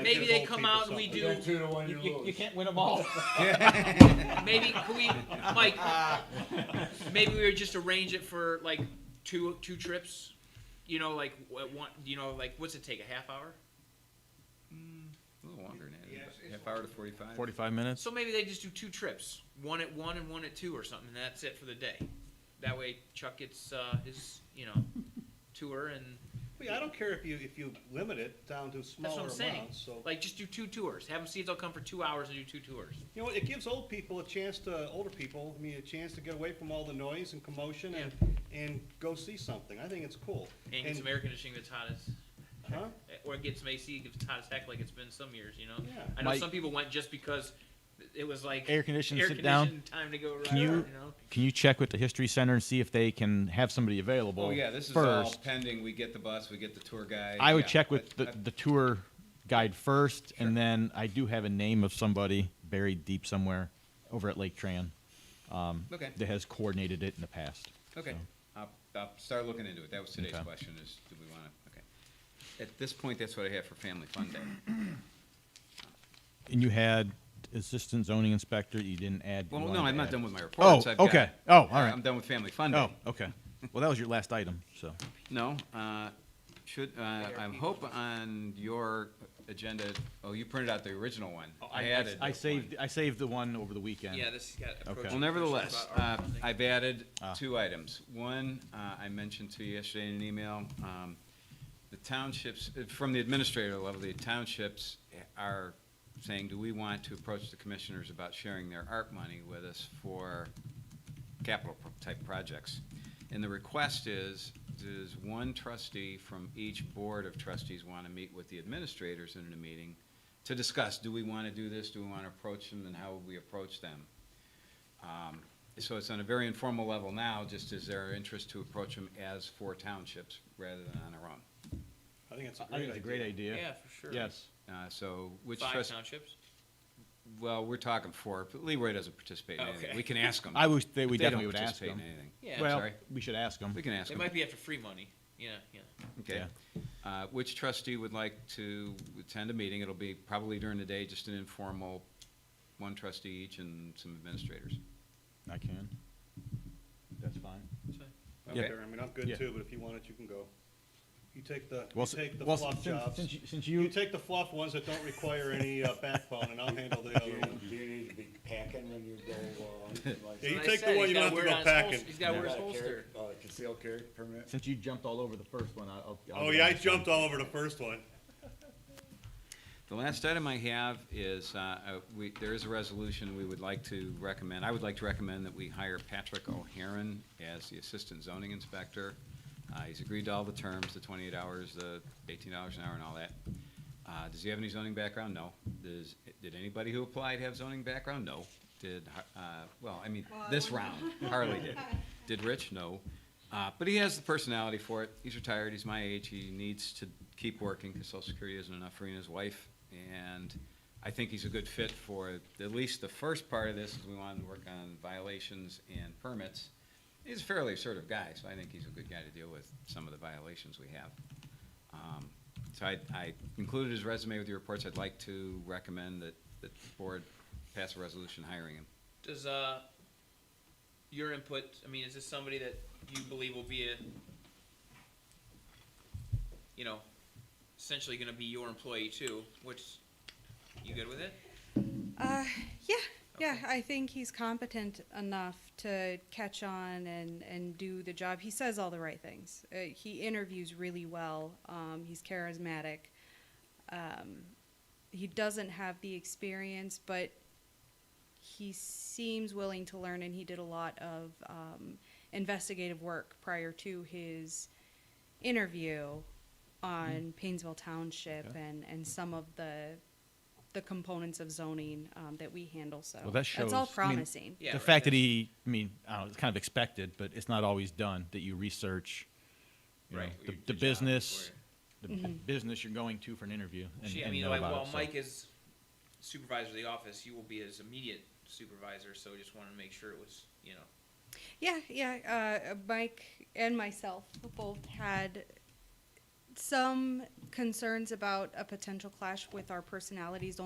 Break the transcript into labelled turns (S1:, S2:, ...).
S1: Maybe they come out and we do.
S2: Two to one,
S3: You,
S2: you
S3: you, you
S2: lose.
S3: can't win them all.
S1: Maybe can we, Mike? Maybe we would just arrange it for like two two trips. You know, like what one. You know, like what's it take? A half hour.
S4: A little longer than
S2: Yes,
S4: that,
S2: it's
S4: half hour to forty-five.
S5: Forty-five minutes.
S1: So maybe they just do two trips, one at one and one at two or something, and that's it for the day. That way Chuck gets uh, his, you know, tour and
S6: Well, yeah, I don't care if you, if you limit it down to
S1: that's
S6: smaller
S1: what I'm saying.
S6: amounts, so.
S1: Like just do two tours. Have them see if they'll come for two hours and do two tours.
S6: You know, it gives old people a chance to, older people, I mean, a chance to get away from all the noise and commotion and, and go see something. I think it's cool.
S1: And get some air conditioning that's hot as,
S6: Huh?
S1: or get some AC that's hot as heck, like it's been some years, you know.
S6: Yeah.
S1: I know
S5: Mike-
S1: some people went just because it was like
S5: Air conditioned. Sit down.
S1: conditioned, time to go. Right
S5: Can you-
S1: know?
S5: Can you check with the history center and see if they can have somebody available?
S4: Oh, yeah, this is all
S5: first.
S4: pending, we get the bus, we get the tour guide.
S5: I would
S4: yeah,
S5: check with
S4: but
S5: the, the tour guide first,
S4: Sure.
S5: and then I do have a name of somebody buried deep somewhere over at Lake Tran
S4: I- uh, Okay,
S5: that has coordinated it in the past.
S4: okay,
S5: so.
S4: I'll, I'll start looking into it, that was today's
S5: Okay.
S4: question, is do we wanna, okay. At this point, that's what I have for Family Fun Day.
S5: And you had assistant zoning inspector. You didn't add. you
S4: Well,
S5: wanted
S4: no,
S5: to
S4: I'm not
S5: add-
S4: done with my
S5: Oh,
S4: reports. I've got-
S5: okay. Oh, all right.
S4: I'm done with Family Fun
S5: Oh,
S4: Day.
S5: okay. Well, that was your last item, so.
S4: No, uh, should, uh, I'm hope on your agenda, oh, you printed out the original one. I added.
S5: I
S4: this
S5: saved,
S4: one.
S5: I saved the one over the weekend.
S1: Yeah, this has got.
S5: Okay.
S4: Well, nevertheless, uh, I've added
S5: Ah.
S4: two items. One, uh, I mentioned to you yesterday in an email, um, the townships, uh, from the administrator level, the townships are saying, do we want to approach the commissioners about sharing their art money with us for capital pro- type projects? And the request is, does one trustee from each board of trustees want to meet with the administrators in a meeting to discuss, do we want to do this, do we want to approach them, and how would we approach them? Um, So it's on a very informal level now, just as their interest to approach them as four townships rather than on our own.
S6: I think it's a
S5: I think
S6: great
S5: it's a great
S6: idea.
S5: idea.
S1: Yeah, for sure.
S5: Yes.
S4: Uh, So which
S1: Five
S4: trust,
S1: townships.
S4: well, we're talking four, but Leroy doesn't participate in anything.
S1: Okay.
S4: We can ask him.
S5: I would, they, we
S4: They don't
S5: definitely would ask
S4: participate in
S5: them.
S4: anything.
S1: Yeah.
S4: I'm
S5: Well,
S4: sorry.
S5: we should ask them.
S4: We can ask
S1: They
S4: him.
S1: might be after free money. Yeah, yeah.
S4: Okay. Uh, Which trustee would like to attend a meeting? It'll be probably during the day, just an informal, one trustee each and some administrators.
S5: I can. That's fine.
S6: I
S5: Yeah.
S6: don't care. I mean, I'm good
S5: Yeah.
S6: too, but if you want it, you can go. You take the, you
S5: Well, s-
S6: take the
S5: well,
S6: fluff
S5: since-
S6: jobs.
S5: Since you, since
S6: You
S5: you,
S6: take the fluff ones that don't require any uh, backbone and I'll handle the other one.
S2: You- You need to be packing when you go, uh,
S6: Yeah, you
S1: Like
S2: like.
S1: I
S6: take the
S1: said,
S6: one
S1: he's
S6: you
S1: gotta
S6: don't have to go
S1: wear it on his holster-
S6: packing.
S1: He's got to wear his
S2: Got a
S1: holster.
S2: carry- Uh, concealed carry permit.
S5: since you jumped all over the first one, I'll. I'll-
S6: Oh, yeah, I jumped all over the first one.
S4: The last item I have is, uh, uh, we, there is a resolution we would like to recommend. I would like to recommend that we hire Patrick O'Haron as the Assistant Zoning Inspector. Uh, He's agreed to all the terms, the 28 hours, the $18 an hour and all that. Uh, Does he have any zoning background? No. Does, did anybody who applied have zoning background? No. Did, uh, well, I mean, this round, Harley did. Did Rich? No. Uh, But he has the personality for it. He's retired, he's my age, he needs to keep working because Social Security isn't enough for he and his wife. And I think he's a good fit for at least the first part of this, is we wanted to work on violations and permits. He's a fairly assertive guy, so I think he's a good guy to deal with some of the violations we have. Um, So I, I included his resume with your reports. I'd like to recommend that, that the board pass a resolution hiring him.
S1: Does uh, your input? I mean, is this somebody that you believe will be a, you know, essentially going to be your employee too? Which you good with it?
S7: Uh, yeah, yeah.
S1: Okay.
S7: I think he's competent enough to catch on and, and do the job. He says all the right things. Uh, he interviews really well. Um, he's charismatic. Um, he doesn't have the experience, but he seems willing to learn, and he did a lot of um, investigative work prior to his interview on Painesville Township
S5: Mm-hmm. Okay.
S7: and, and some of the the components of zoning um, that we handle. So
S5: Well, that
S7: that's all
S5: shows- I mean-
S7: promising.
S1: Yeah.
S5: The
S1: right,
S5: fact that
S1: that's-
S5: he, I mean, I don't know, it's kind of expected, but it's not always done, that you research, you know,
S1: Right,
S5: the,
S1: your-
S5: the
S1: your job
S5: business,
S1: before
S5: the the
S6: Mm-hmm.
S5: business you're going to for an interview and,
S1: She, I
S5: and
S1: mean,
S5: know
S1: like,
S5: about it,
S1: while
S5: so.
S1: Mike is supervisor of the office, you will be his immediate supervisor. So just wanted to make sure it was, you know.
S7: Yeah, yeah. Uh, Mike and myself both had some concerns about a potential clash with our personalities